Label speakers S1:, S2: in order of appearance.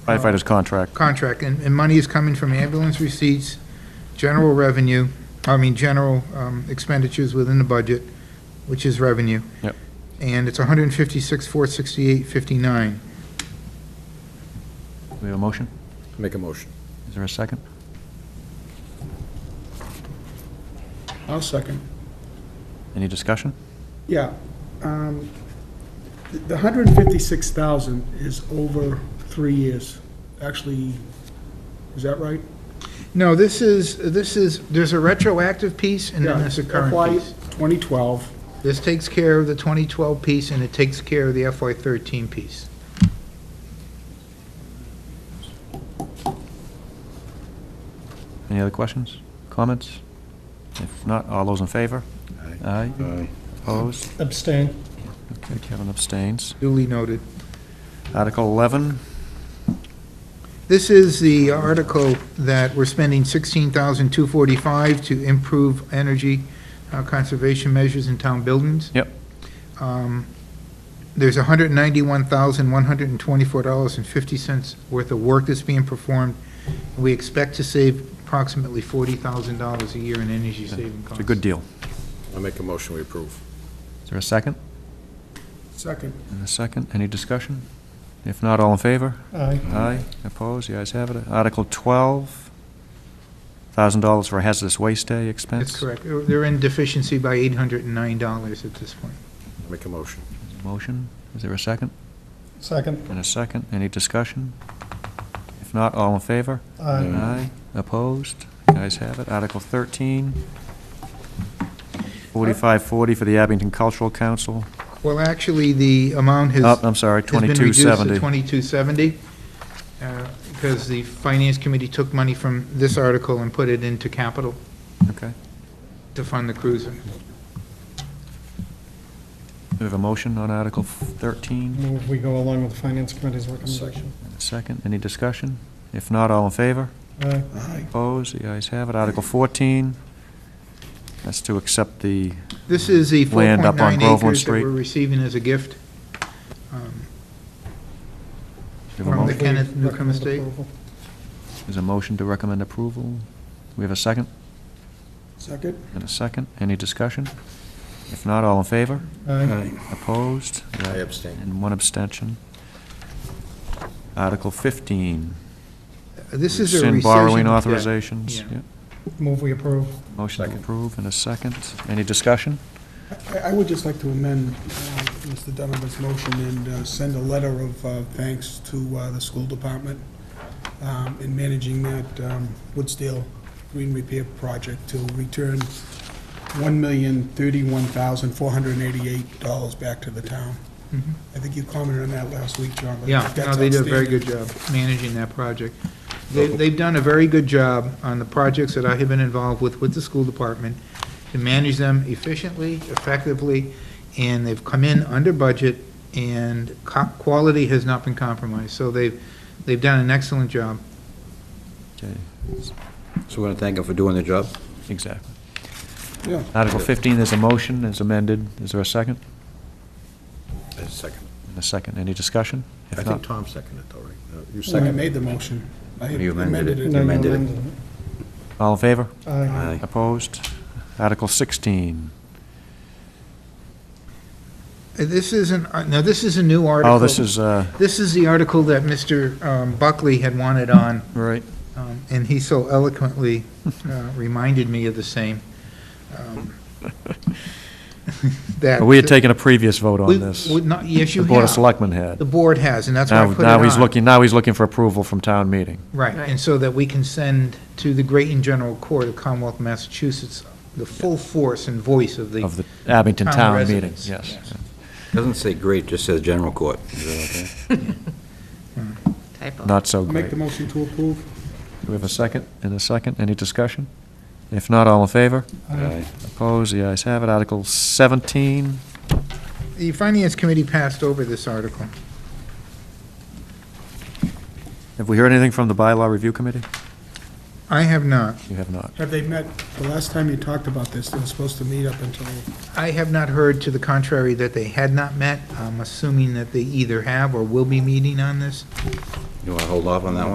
S1: Firefighter's contract.
S2: contract, and, and money is coming from ambulance receipts, general revenue, I mean, general um, expenditures within the budget, which is revenue.
S1: Yep.
S2: And it's 156, 468, 59.
S1: Do we have a motion?
S3: Make a motion.
S1: Is there a second?
S4: I'll second.
S1: Any discussion?
S4: Yeah. um, The the 156,000 is over three years. Actually, is that right?
S2: No, this is, this is, there's a retroactive piece and then there's a current
S4: FY
S2: piece.
S4: 2012,
S2: This takes care of the 2012 piece and it takes care of the FY 13 piece.
S1: Any other questions, comments? If not, all those in favor? Aye.
S3: Uh,
S1: Aye. Opposed?
S5: Abstain.
S1: Okay, Kevin abstains.
S2: Duly noted.
S1: Article 11,
S2: This is the article that we're spending $16,245 to improve energy uh, conservation measures in town buildings.
S1: Yep.
S2: Um, There's $191,124.50 worth of work that's being performed. We expect to save approximately $40,000 a year in energy saving
S1: it's
S2: costs.
S1: a good deal.
S3: I make a motion, we approve.
S1: Is there a second?
S4: second.
S1: And a second, any discussion? If not, all in favor?
S5: Aye.
S1: Aye. Opposed? The ayes have it. Article 12, $1,000 for hazardous waste day expense.
S2: That's correct. They're- They're in deficiency by $809 at this point.
S3: Make a motion.
S1: Motion, is there a second?
S5: Second.
S1: And a second, any discussion? If not, all in favor?
S5: Aye.
S1: Aye. Opposed? Guys have it. Article 13, 4540 for the Abington Cultural Council.
S2: Well, actually, the amount has.
S1: Oh, I'm sorry,
S2: Has been
S1: 2270.
S2: reduced to 2270, uh, because the Finance Committee took money from this article and put it into capital
S1: Okay.
S2: to fund the cruiser.
S1: We have a motion on Article 13.
S5: Move we go along with the Finance Committee's recommendation.
S1: And a Second, any discussion? If not, all in favor?
S5: Aye.
S1: Opposed? The ayes have it. Article 14, that's to accept the,
S2: This is the
S1: Land up on
S2: 4.9
S1: Groveland
S2: acres that
S1: Street.
S2: we're receiving as a gift. Um,
S1: we have a
S2: From
S1: mo-
S2: the- Kenneth
S5: Move we
S2: Newcomb
S5: recommend
S2: Estate.
S5: approval.
S1: is a motion to recommend approval. We have a second?
S4: Second?
S1: And a second, any discussion? If not, all in favor?
S5: Aye.
S1: Opposed?
S3: I abstain.
S1: And one abstention. Article 15.
S2: This is a
S1: Rescind borrowing
S2: rescission of debt.
S1: authorizations.
S2: Yeah.
S1: Yep.
S5: Move we approve.
S1: Motion to
S3: Second.
S1: approve in a second. Any discussion?
S4: I- I would just like to amend uh, Mr. Donovan's motion and uh, send a letter of uh, thanks to uh, the school department um, in managing that um, Woodsdale Green Repair Project to return $1,031,488 back to the town.
S2: Mhm.
S4: I think you commented on that last week, John. but
S2: Yeah, no,
S4: that's
S2: they did a very
S4: outstanding.
S2: good job managing that project. They, they've done a very good job on the projects that I have been involved with, with the school department, to manage them efficiently, effectively, and they've come in under budget, and co- quality has not been compromised, so they've, they've done an excellent job.
S1: Okay,
S3: So we're going to thank him for doing the job?
S1: Exactly.
S4: Yeah.
S1: Article 15, there's a motion, is amended. Is there a second?
S3: Second.
S1: And a second, any discussion? If
S3: I think
S1: not-
S3: Tom seconded it, though, right? No, You
S4: I
S3: seconded
S4: made the motion. I had
S3: You amended it.
S5: No, you
S3: amended it.
S5: amended
S1: All in favor?
S5: it. Aye.
S3: Aye.
S1: Opposed? Article 16.
S2: Uh, This isn't, uh, now, this is a new article.
S1: Oh, this is, uh,
S2: This is the article that Mr. um, Buckley had wanted on
S1: right.
S2: Um, And he so eloquently uh, reminded me of the same. um, That.
S1: We had taken a previous vote on
S2: We-
S1: this.
S2: we- not- Yes, you
S1: The Board of
S2: have.
S1: Selectmen had.
S2: The board has, and that's why I
S1: Now,
S2: put it
S1: now he's
S2: on.
S1: looking, now he's looking for approval from town meeting.
S2: Right, and so that we can send to the Great and General Court of Commonwealth of Massachusetts the full force and voice of the.
S1: Of the Abington
S2: Town
S1: Town meeting,
S2: residents,
S1: yes.
S2: yes.
S3: it. Doesn't say great, just says general court. Is that okay?
S6: Typo.
S1: Not so
S4: Make
S1: great. Do
S4: the motion to approve.
S1: we have a second and a second? Any discussion? If not, all in favor?
S5: Aye.
S1: Opposed? The ayes have it. Article 17,
S2: The Finance Committee passed over this article.
S1: have we heard anything from the Bylaw Review Committee?
S2: I have not.
S1: You have not.
S4: Have they met? The last time you talked about this, they were supposed to meet up until
S2: I have not heard to the contrary that they had not met. I'm assuming that they either have or will be meeting on this.
S3: You want to hold off on that one?